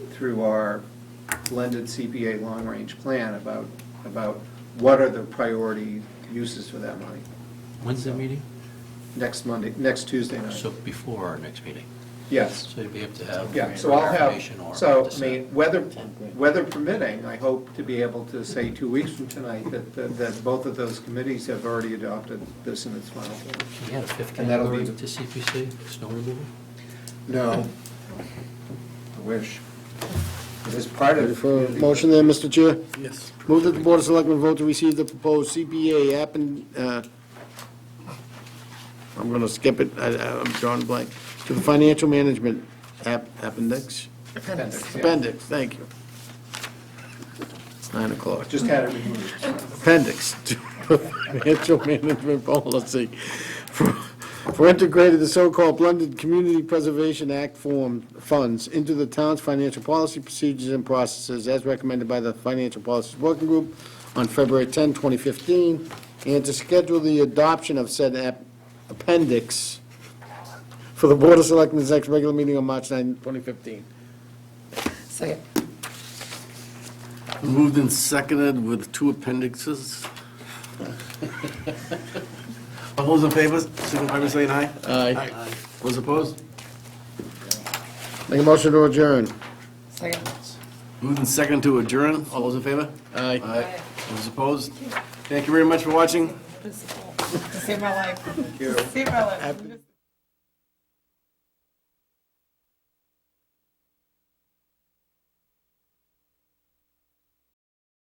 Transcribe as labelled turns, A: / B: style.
A: through our blended CPA long-range plan about, about what are the priority uses for that money.
B: When's the meeting?
A: Next Monday, next Tuesday night,
B: So before our next meeting.
A: uh, yes.
B: So you'd be able to have.
A: Yeah, so I'll
B: clarification or
A: have, so, I
B: decide.
A: mean, weather, weather permitting, I hope to be able to say two weeks from tonight that, that- that both of those committees have already adopted this in its final form.
B: We had a fifth
A: And that'll be-
B: category to CPC, snow removal?
A: No. I wish. It is part
C: Ready
A: of.
C: for a motion there, Mr. Chair?
D: Yes.
C: Move that the Board of Selectmen vote to receive the proposed CPA app and, uh, I'm going to skip it, I- I'm drawing a blank, to the Financial Management app Appendix,
A: Appendix, yeah.
C: appendix, thank you. It's nine o'clock.
A: Just had it removed.
C: appendix to the financial management policy for for integrating the so-called blended Community Preservation Act form funds into the town's financial policy procedures and processes as recommended by the Financial Policies Working Group on February 10, 2015, and to schedule the adoption of said app- appendix for the Board of Selectmen's next regular meeting on March 9, 2015.
E: Second.
D: Moved and seconded with two appendixes. All those in favor, signify by saying aye.
C: Aye.
D: Those opposed?
C: Make a motion to adjourn.
E: Second.
D: Moved and seconded to adjourn. All those in favor?
C: Aye.
E: Aye.
D: Those opposed? Thank you very much for watching.
E: Principal. Save my life. Save my life.